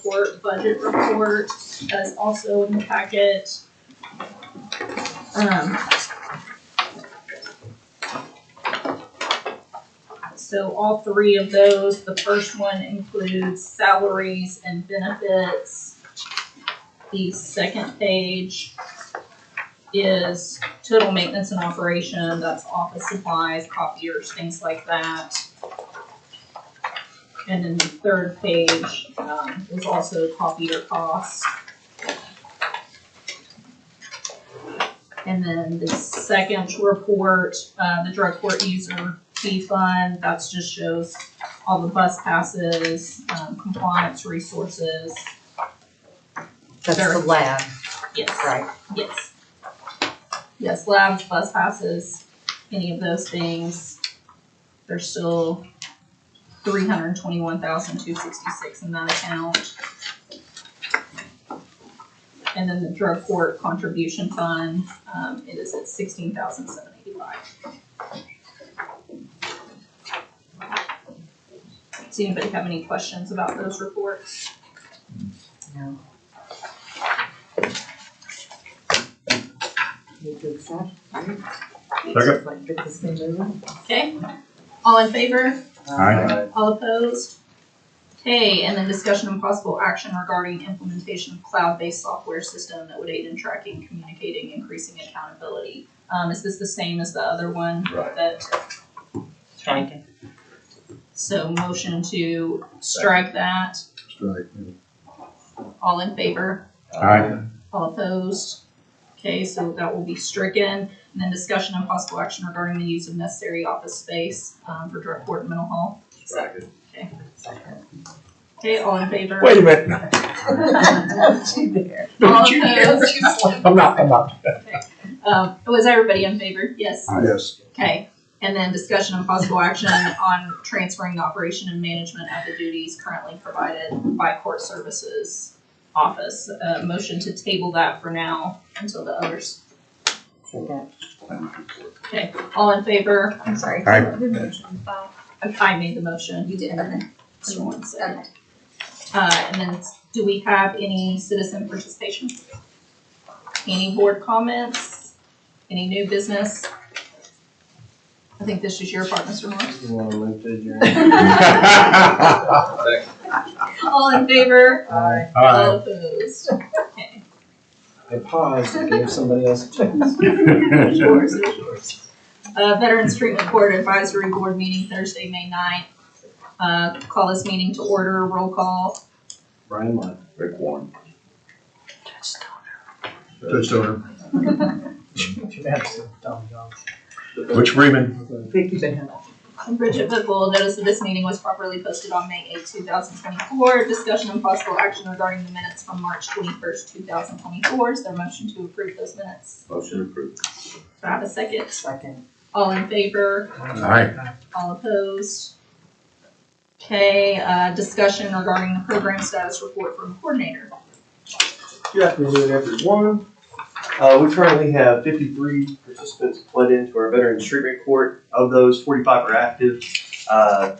report, budget report, that's also in the packet. Um. So all three of those, the first one includes salaries and benefits. The second page is total maintenance and operation, that's office supplies, copiers, things like that. And then the third page, um, is also copier costs. And then the second report, uh, the drug court user fee fund, that's just shows all the bus passes, um, compliance resources, That's the Sure. lab, yes. right? Yes. Yes, labs, bus passes, any of those things, there's still three hundred and twenty-one thousand two sixty-six in that account. And then the drug court contribution fund, um, it is at sixteen thousand seven eighty-five. Does anybody have any questions about those reports? No. Need to accept. Second. Get this thing moving. Okay, all in favor? Aye. All opposed? Okay, and then discussion and possible action regarding implementation of cloud-based software system that would aid in tracking, communicating, increasing accountability. Um, is this the same as the other one? Right. That, Thank you. so motion to strike that, Strike. all in favor, Aye. Um, all opposed? Okay, so that will be stricken, and then discussion and possible action regarding the use of necessary office space, um, for drug court and mental health. Okay, all in favor? Wait a minute, no, Don't you dare. don't you dare. I'm not, I'm not. Um, was everybody in favor? Yes. Yes. Okay, and then discussion and possible action on transferring the operation and management of the duties currently provided by court services office. Uh, motion to table that for now until the others. Second. Okay, all in favor? I'm sorry. Aye. Who motioned? I made the motion. You did. Okay. Just one second. Uh, and then do we have any citizen participation? Any board comments? Any new business? I think this is your part, Mr. Moore. You wanna move to adjourn? All in favor? I Aye. All opposed? Okay. paused and gave somebody else a chance. Yours is yours. Uh, Veterans Treatment Board Advisory Board meeting Thursday, May ninth. Uh, call this meeting to order, roll call. Brian left. Rick Warren. Judge Stoner. Butch Freeman. Vicky Benhammon. And Bridget Bickle, notice that this meeting was properly posted on May eighth, two thousand twenty-four. Discussion and possible action regarding the minutes from March twenty-first, two thousand twenty-four. Is there a motion to approve those minutes? Motion approved. Do I have a second? Second. All in favor? Aye. All opposed? Okay, uh, discussion regarding the program status report from coordinator. Good afternoon, everyone. Uh, we currently have fifty-three participants pled into our Veterans Treatment Court. Of those, forty-five are active. Uh,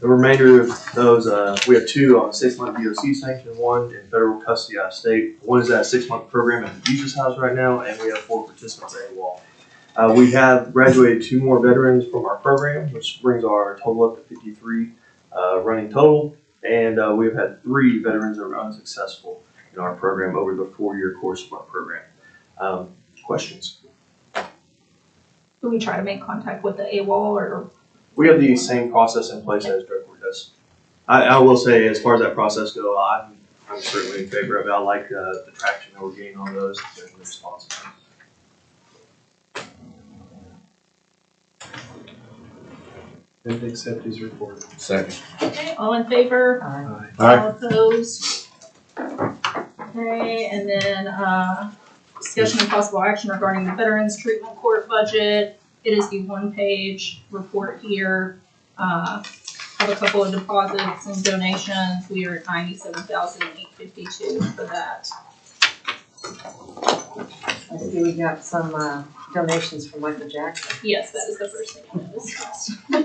The remainder of those, uh, we have two on six-month DOC sanction, one in federal custody out of state. One is at a six-month program at the Jesus House right now, and we have four participants at AWOL. Uh, we have graduated two more veterans from our program, which brings our total up to fifty-three, uh, running total. And, uh, we've had three veterans that were unsuccessful in our program over the four-year course of our program. Um, questions? Do we try to make contact with the AWOL or? We have the same process in place as drug court does. I, I will say, as far as that process go, I'm, I'm certainly in favor of it. I like, uh, the traction that we're getting on those and the response. Didn't accept his report. Second. Okay, all in favor? Aye. Aye. All opposed? Okay, and then, uh, discussion and possible action regarding the Veterans Treatment Court budget. It is the one-page report here. Uh, have a couple of deposits and donations. We are at ninety-seven thousand eight fifty-two for that. I see we got some uh, donations from Michael Jackson. Yes, that is the first thing I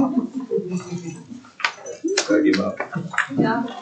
noticed. Gotta give up. Yeah.